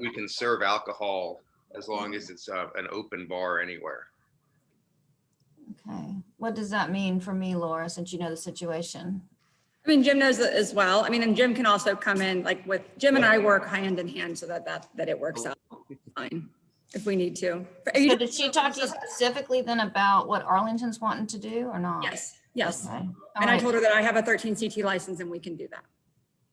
we can serve alcohol as long as it's uh, an open bar anywhere. Okay, what does that mean for me, Laura, since you know the situation? I mean, Jim knows it as well. I mean, and Jim can also come in, like with, Jim and I work hand in hand so that, that, that it works out fine if we need to. Are you- So did she talk to you specifically then about what Arlington's wanting to do or not? Yes, yes. Okay. All And I right. told her that I have a thirteen CT license and we can do that.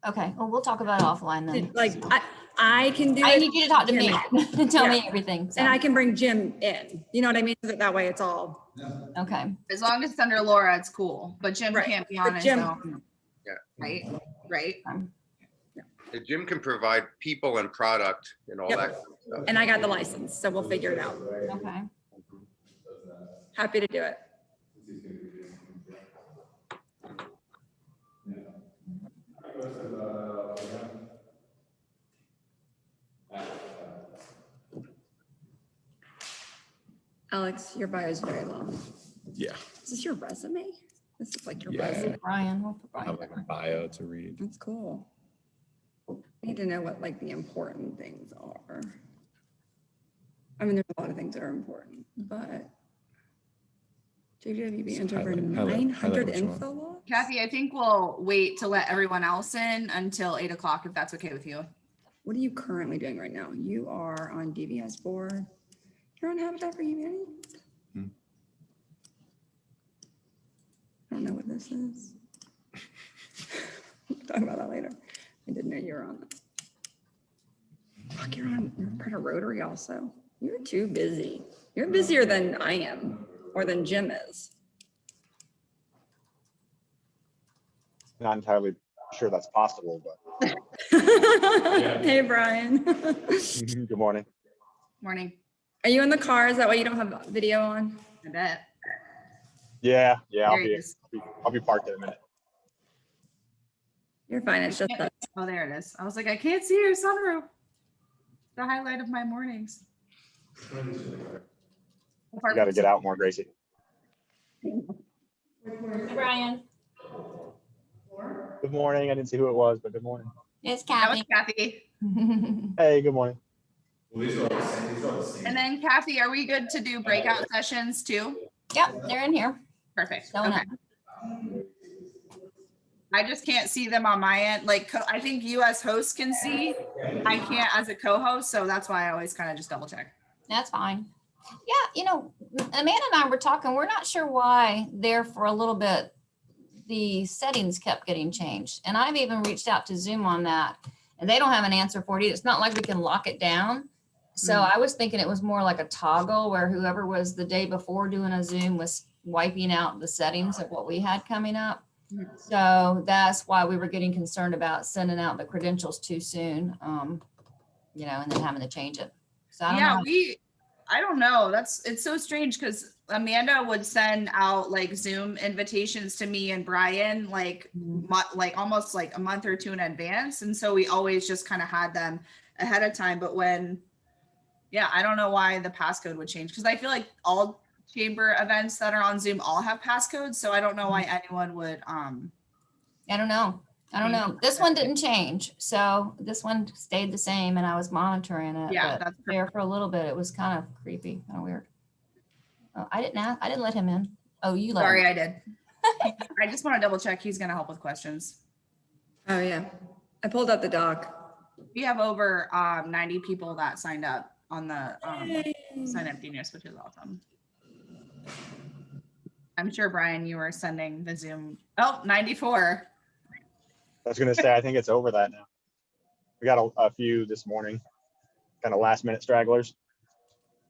Okay, well, we'll talk about it offline then. Like, I, I can do I it need you to talk to me and tell me Yeah. everything. so, and I can bring Jim in. You know what I mean? So That that way it's all, Okay, As long as it's under Laura, it's cool, but Jim Right. can't be But on his Jim- own. Yeah. Right, right. Um, The gym can provide people and product and all Yep. that. and I got the license, so we'll figure it out. okay. Happy to do it. Alex, your bio is very long. Yeah, Is this your resume? This is like your Yeah. resume. Brian, we'll put I Brian. have like a bio to read. That's cool. I Need to know what like the important things are. I mean, there's a lot of things that are important, but JWB banned Just over highlight- highlight- highlight nine hundred which one. info logs? Kathy, I think we'll wait to let everyone else in until eight o'clock, if that's okay with you. What are you currently doing right now? You are on DVS board. You're on Habitat for Humanity? I Hmm. don't know what this is. We'll Talk about that later. I didn't know you were on. that. Fuck, you're on, you're part of Rotary also. You're too busy. You're busier than I am or than Jim is. Not entirely sure that's possible, but Hey, Brian. good morning. Morning, Are you in the car? Is that why you don't have video on? I bet. Yeah, yeah, I'll There it be, is. I'll be parked in a minute. You're fine. It's just that. Oh, there it is. I was like, I can't see your sunroof. The highlight of my mornings. You gotta get out more, Gracie. Brian, Good morning. I didn't see who it was, but good morning. it's That Kathy. was Kathy. Hey, good morning. And then Kathy, are we good to do breakout sessions too? Yep, they're in here. Perfect. Going Okay. up. I just can't see them on my end. Like, co- I think you as host can see. I can't as a co-host, so that's why I always kind of just double check. That's fine. Yeah, you know, Amanda and I were talking, we're not sure why there for a little bit, the settings kept getting changed. And I've even reached out to Zoom on that and they don't have an answer for it. either. It's not like we can lock it down. So Mhm. I was thinking it was more like a toggle where whoever was the day before doing a Zoom was wiping out the settings of what we had coming up. Mhm. So that's why we were getting concerned about sending out the credentials too soon, um, you know, and then having to change it. So I don't know. Yeah, we, I don't know. That's, it's so strange because Amanda would send out like Zoom invitations to me and Brian, like, Mm-hmm. mu- like almost like a month or two in advance. And so we always just kind of had them ahead of time. But when, yeah, I don't know why the passcode would change because I feel like all chamber events that are on Zoom all have passcodes. So I don't know why Mm-hmm. anyone would, um, I don't know. I don't Change know. This one didn't change. So this one stayed the same and I was monitoring it. yeah, but that's perfect. There for a little bit, it was kind of creepy, kind of weird. Oh, I didn't ask, I didn't let him in. Oh, you let him. Sorry, in. I did. I just want to double check. He's going to help with questions. Oh, yeah. I pulled out the doc. We have over um, 90 people that signed up on the um, sign up genius, which is awesome. I'm sure Brian, you were sending the Zoom. Oh, 94. I was gonna say, I think it's over that now. We got a, a few this morning, kind of last minute stragglers.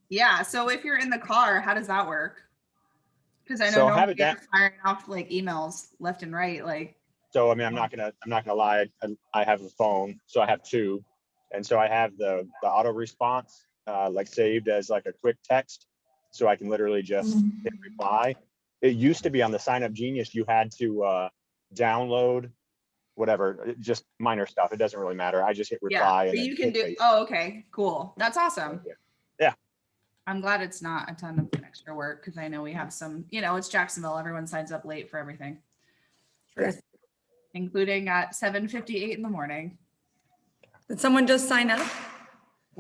Yeah. So if you're in the car, how does that work? Because I know So normally have it you're down- firing off like emails left and right. Like, So I mean, I'm not gonna, I'm not gonna lie. I, I have a phone, so I have two. And so I have the, the auto response, uh, like saved as like a quick text. So I can literally just Mm-hmm. hit reply. It used to be on the sign up genius, you had to, uh, download whatever, it- just minor stuff. It doesn't really matter. I just hit reply. yeah, and but then you can hit do. paste. Oh, okay. Cool. That's awesome. Yeah. I'm glad it's not a ton of extra work because I know we have some, you know, it's Jacksonville. Everyone signs up late for everything. Yes. Including at 7:58 in the morning. Did someone just sign up?